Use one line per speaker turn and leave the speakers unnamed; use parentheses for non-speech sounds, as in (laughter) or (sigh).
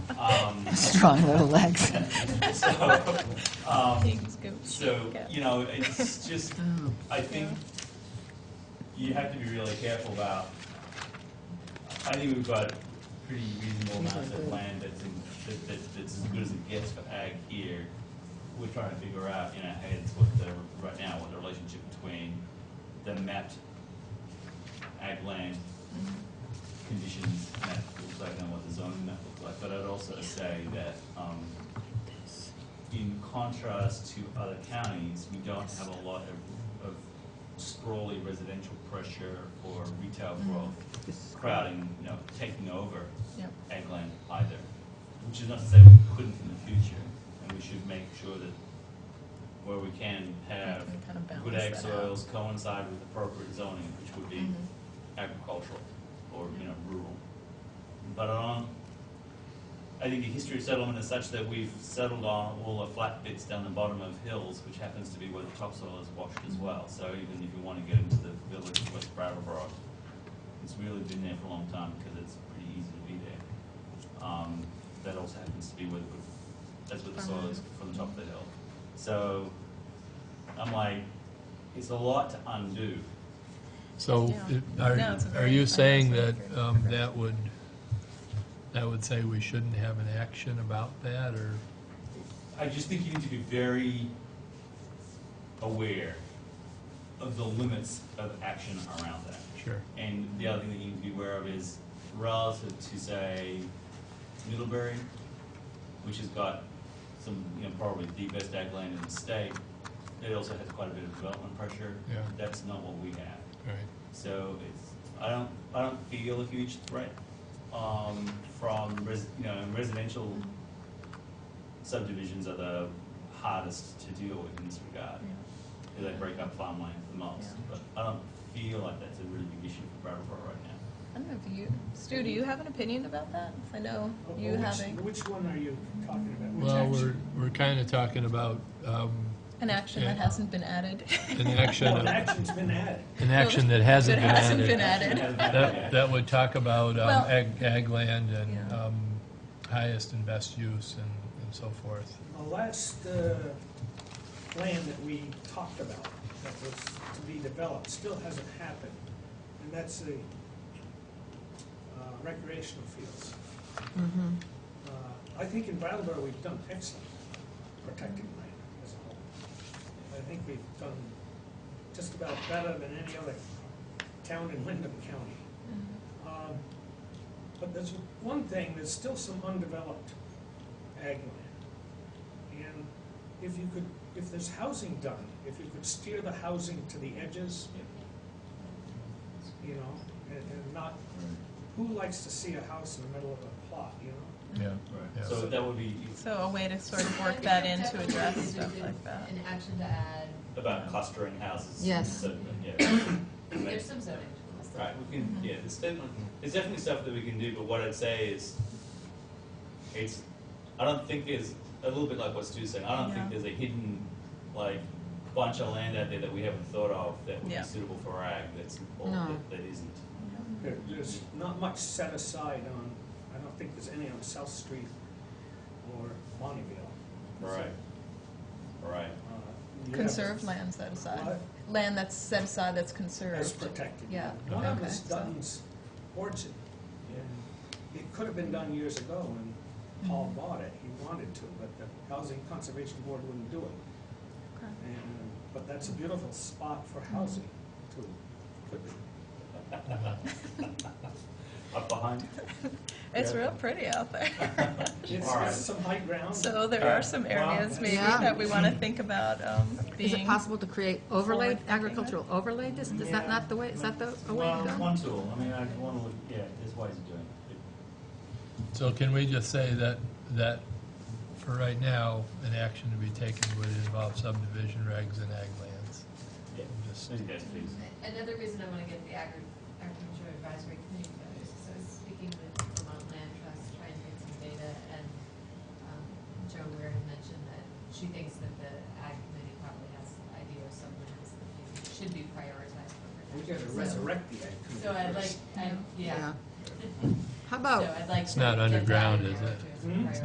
Strong little legs.
Um, So, um, so,
Yeah.
you know, it's just, I think you have to be really careful about, I think we've got pretty reasonable amounts of land that's in, that, that- that's as good as it gets for ag here. We're trying to figure out in our heads what the, right now, what the relationship between the mapped ag land conditions map looks like and what the zoning map looks like, but I'd also say that, um, in contrast to other counties, we don't have a lot of, of sprawly residential pressure or retail
Mm-hmm.
growth crowding, you know, taking over
Yep.
ag land either, which is not to say we couldn't in the future, and we should make sure that where we can have
We kind of balance
good uh, ag
that out.
soils coincide with appropriate zoning, which would be
Mhm.
agricultural or, you know, rural. But on, I think the history of settlement is such that we've settled on all the flat bits down the bottom of hills, which happens to be where the topsoil is washed as well. So even if you want to get into the village of West Brattleboro, it's really been there for a long time because it's pretty easy to be there. Um, that also happens to be where the, that's where the soil is from the top of the hill. So I'm like, it's a lot to undo.
So
Yeah.
it- are,
No, it's a
are
very- I
you
know
saying
it's a
that
very
um,
progressive.
that would, that would say we shouldn't have an action about that, or?
I just think you need to be very aware of the limits of action around that.
Sure.
And the other thing that you need to be aware of is relative to, say, Middlebury, which has got some, you know, probably the best ag land in the state. It also has quite a bit of development pressure.
Yeah.
That's not what we have.
Right.
So it's, I don't, I don't feel a huge threat, um, from res, you know, residential subdivisions are the hardest to deal with in this regard.
Yeah.
'cause They break up farmland the most,
Yeah.
but I don't feel like that's a really big issue for Brattleboro right now.
I don't know if you, Stu, do you have an opinion about that? 'Cause I know you
Which-
having
Which one are you talking about? Which
Well, we're,
action?
we're kind of talking about um,
an action that
Yeah.
hasn't been added. (laughs)
an action,
Well,
an
an action's been added.
action that hasn't been
hasn't
added.
been
(laughs)
added.
Hasn't been added
That,
yet.
that would talk about um,
Well-
ag, ag land and
Yeah.
um, highest and best use and, and so forth.
The last uh, land that we talked about that was to be developed still hasn't happened, and that's the uh, recreational fields. Uh, I think in Brattleboro, we've done excellent protecting land as a whole. I think we've done just about better than any other town in Wyndham County. Um, But there's one thing, there's still some undeveloped ag land. And if you could, if there's housing done, if you could steer the housing to the edges, you know, and and not, who likes to see a house in the middle of a plot, you know?
Mm-hmm.
Yeah. Yeah.
Right, so that would be
So a way to sort of work that in to address stuff like that.
An action to add,
about clustering houses.
Yes.
So, yeah.
there's some zoning tools.
Right, we can, yeah, there's definitely, there's definitely stuff that we can do, but what I'd say is, it's, I don't think there's, a little bit like what Stu's saying, I don't think
Yeah.
there's a hidden, like, bunch of land out there that we haven't thought of that would
Yeah.
be suitable for ag, that's, or
No.
that, that isn't.
There- There's not much set aside on, I don't think there's any on South Street or Bonneville.
Right. Right,
Uh, you have
Conserved land set aside.
What?
Land that's set aside that's
As
conserved.
protected.
Yeah.
One of
Okay.
us Dutton's orchard. and It could have been done years ago when Paul bought it, he wanted to, but the Housing Conservation Board wouldn't do it.
Okay.
And, but that's a beautiful spot for housing too. Could be.
up behind.
It's
Yeah.
real pretty out there.
It's,
All right.
it's some high ground.
So there are some areas maybe
Yeah.
that we want to think about um,
Is it
being.
possible to create overlay,
forward-thinking.
agricultural overlay dis Is that
Yeah.
not the way, is that the a way
Well,
to go?
one tool, I mean, I wanna look, yeah, there's ways of doing it.
So can we just say that, that for right now, an action to be taken would involve subdivision regs and ag lands?
Yeah,
Just-
those guys, please.
Another reason I want to get the agri- agriculture advisory committee together is because I was speaking with Vermont Land Trust, trying to get some data, and um, Joan Weir had mentioned that she thinks that the ag committee probably has idea of some lands that they should be prioritized for
We
protection.
gotta
So-
resurrect the ag committee
So I'd like,
first.
I, yeah.
How
So
about
I'd like.
It's
to
not
get that
underground,
in
is
there
it?
too, as a
Hmm?
priority.